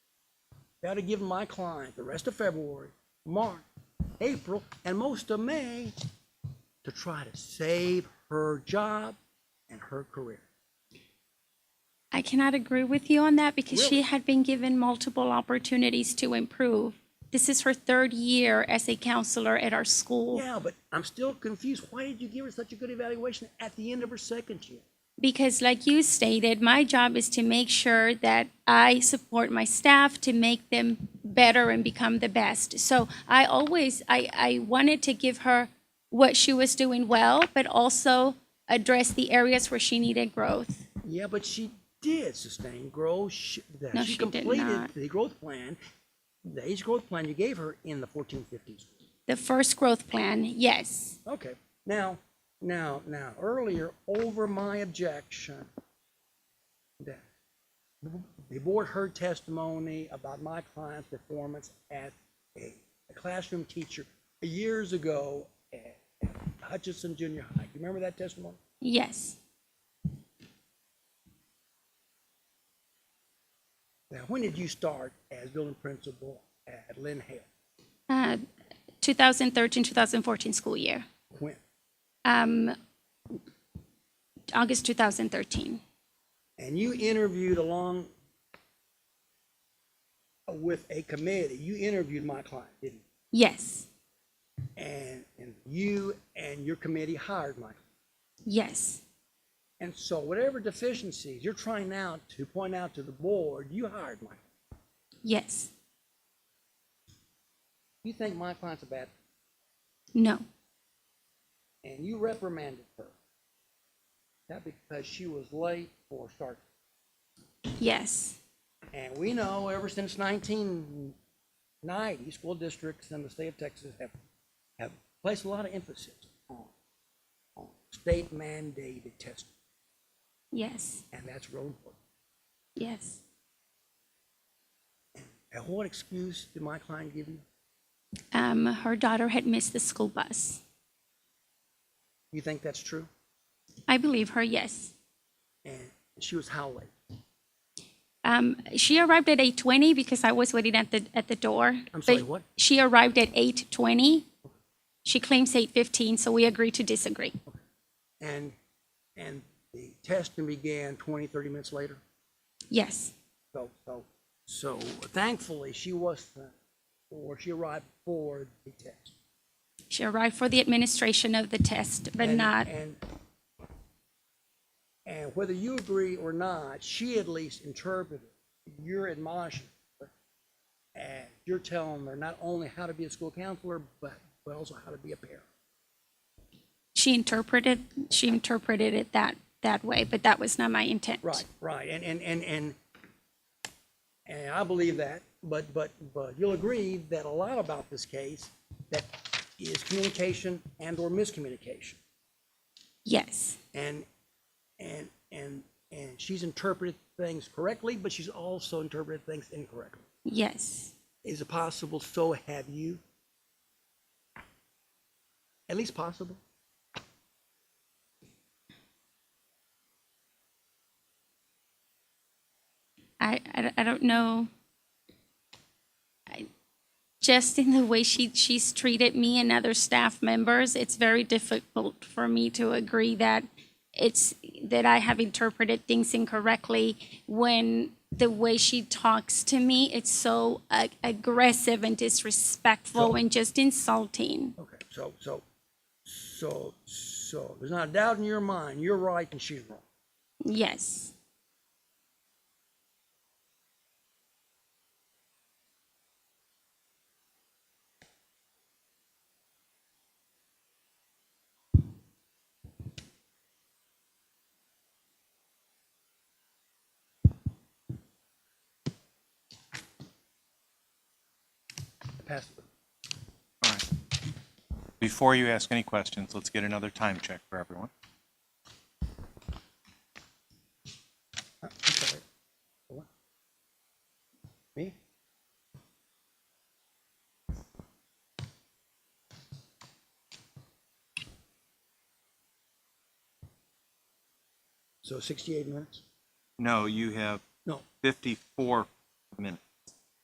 That'd have given my client the rest of February, March, April, and most of May to try to save her job and her career. I cannot agree with you on that because Really? she had been given multiple opportunities to improve. This is her third year as a counselor at our school Yeah, but I'm still confused. Why did you give her such a good evaluation at the end of her second year? because, like you stated, my job is to make sure that I support my staff to make them better and become the best. So I always I, I wanted to give her what she was doing well, but also address the areas where she needed growth. Yeah, but she did sustain growth. She, that No, she, she did completed not. the growth plan, the age growth plan you gave her in the 1450s. The first growth plan, yes. Okay. Now, now, now, earlier, over my objection, that the board heard testimony about my client's performance as a, a classroom teacher years ago at Hutchinson Junior High. You remember that testimony? Yes. Now, when did you start as building principal at Lynn Hale? Uh, 2013, 2014 school year. When? Um, August 2013. and you interviewed along with a committee, you interviewed my client, didn't you? Yes, And, and you and your committee hired my client. yes, And so whatever deficiencies you're trying now to point out to the board, you hired my client. yes. You think my client's a bad, No, and you reprimanded her. That because she was late for start. yes, And we know ever since nineteen ninety, school districts in the state of Texas have, have placed a lot of emphasis on, on state mandated testing, yes, and that's real important. yes. And what excuse did my client give you? Um, her daughter had missed the school bus. You think that's true? I believe her, yes. And she was how late? Um, she arrived at 8:20 because I was waiting at the at the door. I'm But sorry, what? She arrived at 8:20. She claims 8:15, so we agree to disagree. And, and the testing began 20, 30 minutes later? Yes, So, so, so thankfully, she wasn't, or she arrived for the test. she arrived for the administration of the test, but And- not. And, and whether you agree or not, she at least interpreted your admonishment. And you're telling her not only how to be a school counselor, but, but also how to be a parent. she interpreted she interpreted it that that way but that was not my intent Right, right, and, and, and, and, and I believe that, but, but, but you'll agree that a lot about this case that is communication and or miscommunication. yes and and and and she's interpreted things correctly, but she's also interpreted things incorrectly. yes Is it possible? So have you? At least possible. i i, I don't know I, just in the way she she's treated me and other staff members it's very difficult for me to agree that it's that i have interpreted things incorrectly when the way she talks to me it's so uh, aggressive and disrespectful and just insulting Okay. So so so so there's not a doubt in your mind. You're right and she's wrong. yes Pass it. All right. Before you ask any questions, let's get another time check for everyone. Uh, I'm sorry. What? Me? So sixty-eight minutes? No, you have No, 54 minutes.